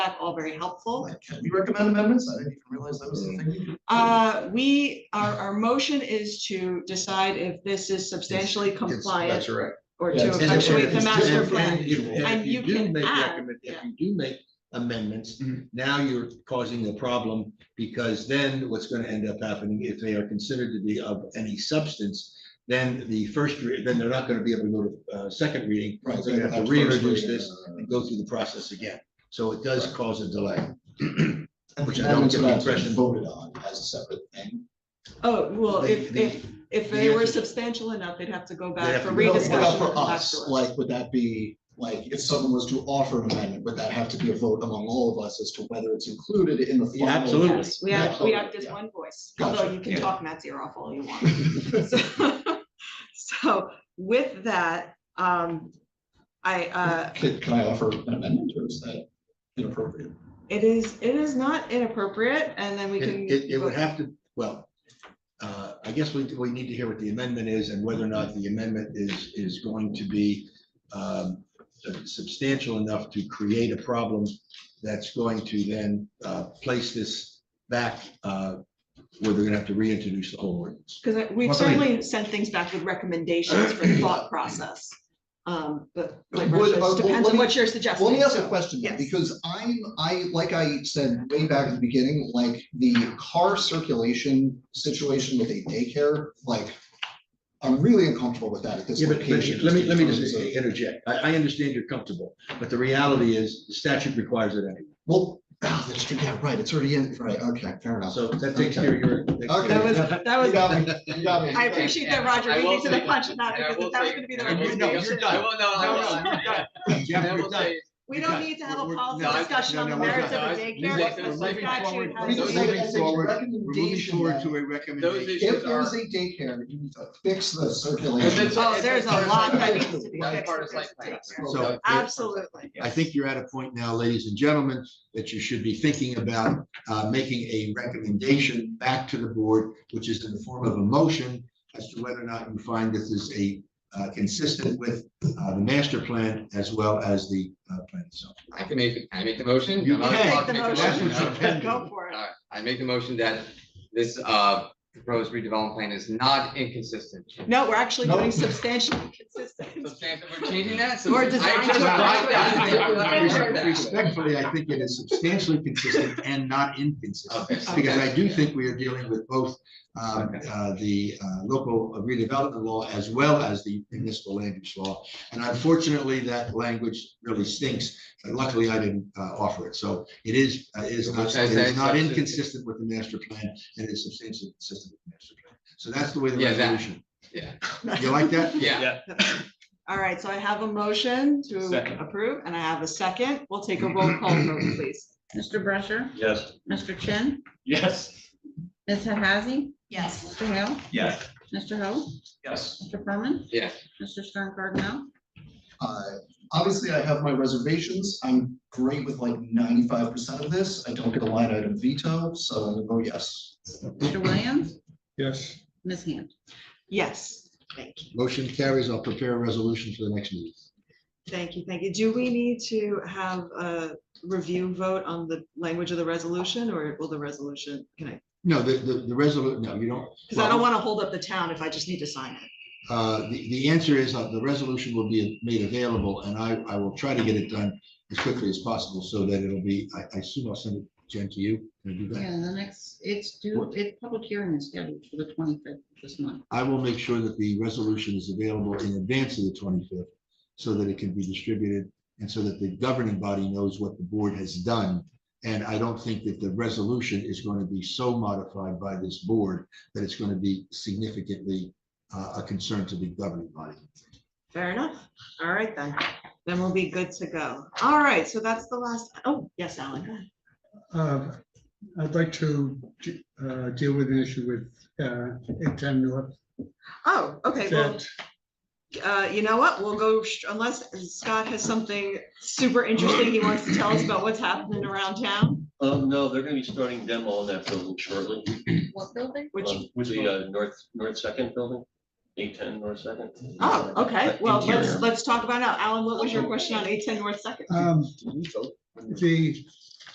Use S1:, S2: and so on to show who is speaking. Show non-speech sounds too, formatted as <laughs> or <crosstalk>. S1: feedback, all very helpful.
S2: Like, Can we recommend amendments? I didn't even realize that was the thing.
S3: Mm-hmm.
S2: we could-
S1: Uh, we, our, our motion is to decide if this is substantially
S2: uh,
S1: compliant
S3: That's right.
S1: or
S3: Yeah,
S1: to
S3: and if-
S1: complete the
S3: and-
S1: master
S3: and-
S1: plan.
S3: and if-
S1: And you
S3: if do
S1: can
S3: make
S1: add, Mm-hmm.
S3: recommend-
S1: yeah.
S3: If you do make amendments,
S2: Mhm.
S3: now you're causing a problem, because then what's gonna end up happening, if they are considered to be of any substance, then the first, re- then they're not gonna be able to go to, uh, second reading.
S2: Right,
S3: So you have to reintroduce this and go through the process again. So it does
S2: Right.
S3: cause a delay.
S2: And
S3: Which
S2: the
S3: Uh, I don't
S2: amendments
S3: get
S2: would
S3: the
S2: have to be
S3: impression-
S2: voted on as a separate thing.
S1: Oh, well,
S3: They-
S1: if,
S3: they-
S1: if, if
S3: the
S1: they were
S3: answer-
S1: substantial enough, they'd have to go
S3: They'd
S1: back
S3: have
S1: for
S3: to go
S2: No,
S3: back.
S1: rediscussion.
S2: What about
S1: and
S2: for
S1: come back
S2: us?
S1: to us.
S2: Like, would that be, like, if someone was to offer an amendment, would that have to be a vote among all of us as to whether it's included in the
S3: Yeah,
S2: final?
S3: absolutely.
S1: Yes, we have, we
S2: Absolutely,
S1: have just
S2: yeah.
S1: one voice,
S2: Gotcha,
S1: although you can
S3: yeah.
S1: talk Matt's ear off all you
S3: <laughs>
S1: want. So- <laughs> So with that, um, I, uh,
S2: Can, can I offer an amendment or is that inappropriate?
S1: it is, it is not inappropriate and then we can.
S3: It, it, it would
S1: vote.
S3: have to, well, uh, I guess we, we need to hear what the amendment is and whether or not the amendment is, is going to be um, substantial enough to create a problem that's going to then uh, place this back uh, where they're gonna have to reintroduce the whole ordinance.
S1: Because we've
S3: Well, I mean-
S1: certainly sent things back with recommendations for thought process. Um, but like
S2: Would-
S1: Russia,
S2: uh, well,
S1: it depends
S2: let
S1: on
S2: me-
S1: what you're
S2: Well,
S1: suggesting.
S2: Let me ask a
S1: so-
S2: question, then,
S1: yes.
S2: because I'm, I, like I said way back at the beginning, like the car circulation situation with a daycare, like. I'm really uncomfortable with that at this
S3: Yeah, but
S2: location.
S3: let me, let me
S2: in terms
S3: just
S2: of-
S3: interject. I, I understand you're comfortable, but the reality is the statute requires it anyway.
S2: Well, ah, that's true, yeah, right, it's already in, right, okay, fair enough.
S3: So that takes care of your.
S1: That was, <laughs>
S2: Okay.
S1: that
S2: You
S1: was,
S2: got me, you got me.
S1: I appreciate that, Roger.
S4: I
S1: You
S4: will
S1: need to the
S4: say-
S1: punch of that
S4: and I
S1: because
S4: will
S1: that was
S4: say-
S1: gonna be the
S4: and I will
S3: recommendation.
S4: say-
S3: No, you're done.
S4: I will, no, I
S3: No,
S4: will.
S3: no, you're done.
S4: And I will say,
S1: we don't
S3: Okay.
S1: need to have a
S3: We're- we're-
S1: policy
S4: no, I-
S1: discussion
S3: no,
S1: on the
S3: no, we're
S1: merits of a
S4: done. We're
S1: daycare. if the
S4: moving- we're moving
S1: statute
S4: forward.
S1: has
S2: Let me just
S1: a-
S2: say
S3: Moving
S2: that as a
S3: forward, we're We're moving
S2: recommendation
S3: forward
S2: that
S3: to a
S4: Those
S3: recommendation.
S4: issues
S2: If there's
S4: are.
S2: a daycare, you need to fix the circulation.
S4: That's
S1: Oh, there's a
S4: part of
S1: lot that
S4: like-
S1: needs to be
S4: that's
S1: fixed
S4: part
S1: with
S4: of like
S1: this
S4: tax.
S1: daycare.
S3: So
S1: Absolutely.
S3: I think you're at a point now, ladies and gentlemen, that you should be thinking about uh, making a recommendation back to the board, which is in the form of a motion as to whether or not you find this is a uh, consistent with uh, the master plan as well as the uh, plan itself.
S4: I can make, I make the motion.
S3: You
S4: I'm not
S3: can.
S4: allowed to
S1: Make the
S4: make motion,
S3: motion.
S4: no?
S3: That's what
S1: Go for it.
S4: All right, I make the motion that this uh proposed redevelopment plan is not inconsistent.
S1: No, we're actually
S2: No.
S1: doing substantially consistent.
S4: Substantive, we're changing that?
S1: Or
S4: I
S1: design
S4: just-
S1: to-
S4: I just- I just- I heard that.
S3: Respectfully, I think it is substantially consistent and not inconsistent.
S4: Okay.
S3: Because I do
S4: Okay.
S3: think we are dealing with both um,
S4: Oh, Okay.
S3: uh, the uh, local redevelopment law as well as the municipal land use law. And unfortunately, that language really stinks. But Luckily, I didn't uh, offer it. So it is, uh, it is not,
S4: Which I
S3: it
S4: say
S3: is not
S4: substantive.
S3: inconsistent with the master plan and it's substantially consistent with the master plan. So that's the way the
S4: Yeah, that-
S3: resolution.
S4: yeah.
S3: You like that?
S4: Yeah,
S1: All right, so I have a motion
S5: Second.
S1: to approve and I have a second. We'll take a roll call vote, please.
S6: Mr. Brusher?
S5: Yes.
S6: Mr. Chin?
S5: Yes.
S6: Ms. Hazzy?
S1: Yes.
S6: Mr. Hale?
S5: Yes.
S6: Mr. Ho?
S5: Yes.
S6: Mr. Furman?
S4: yeah.
S6: Mr. Stern Cardinal?
S2: Uh, Obviously, I have my reservations. I'm great with like ninety-five percent of this. I don't get a line item veto, so I'm gonna go yes.
S6: Mr. Williams?
S5: Yes.
S6: Ms. Hand?
S1: Yes,
S3: Motion carries. I'll prepare a resolution for the next meeting.
S1: thank you, thank you. Do we need to have a review vote on the language of the resolution or will the resolution, can I?
S3: No, the, the, the resolution, no, you don't.
S1: Because I don't want to hold up the town if I just need to sign it.
S3: Uh, the, the answer is uh, the resolution will be made available and I, I will try to get it done as quickly as possible so that it'll be, I, I assume I'll send it, Jen, to you. Can I do that?
S6: Yeah, the next, it's due, it, public hearing is scheduled for the twenty-fifth of this month.
S3: I will make sure that the resolution is available in advance of the twenty-fifth so that it can be distributed and so that the governing body knows what the board has done. And I don't think that the resolution is going to be so modified by this board that it's going to be significantly uh, a concern to the governing body.
S1: Fair enough. All right then. Then we'll be good to go. All right, so that's the last, oh, yes, Alan, go ahead.
S7: Uh, I'd like to uh, deal with an issue with uh, 810 North.
S1: Oh, okay, well,
S7: that-
S1: uh, you know what? We'll go, sh- unless Scott has something super interesting he wants to tell us about what's happening around town,
S8: Um, no, they're gonna be starting demo on that building shortly.
S6: What building?
S1: which,
S8: Um, The uh, north, north second building, eight ten north second.
S1: oh, okay, well, let's,
S8: Uh, Interior.
S1: let's talk about it now. Alan, what was your question on eight ten North Second?
S7: um, The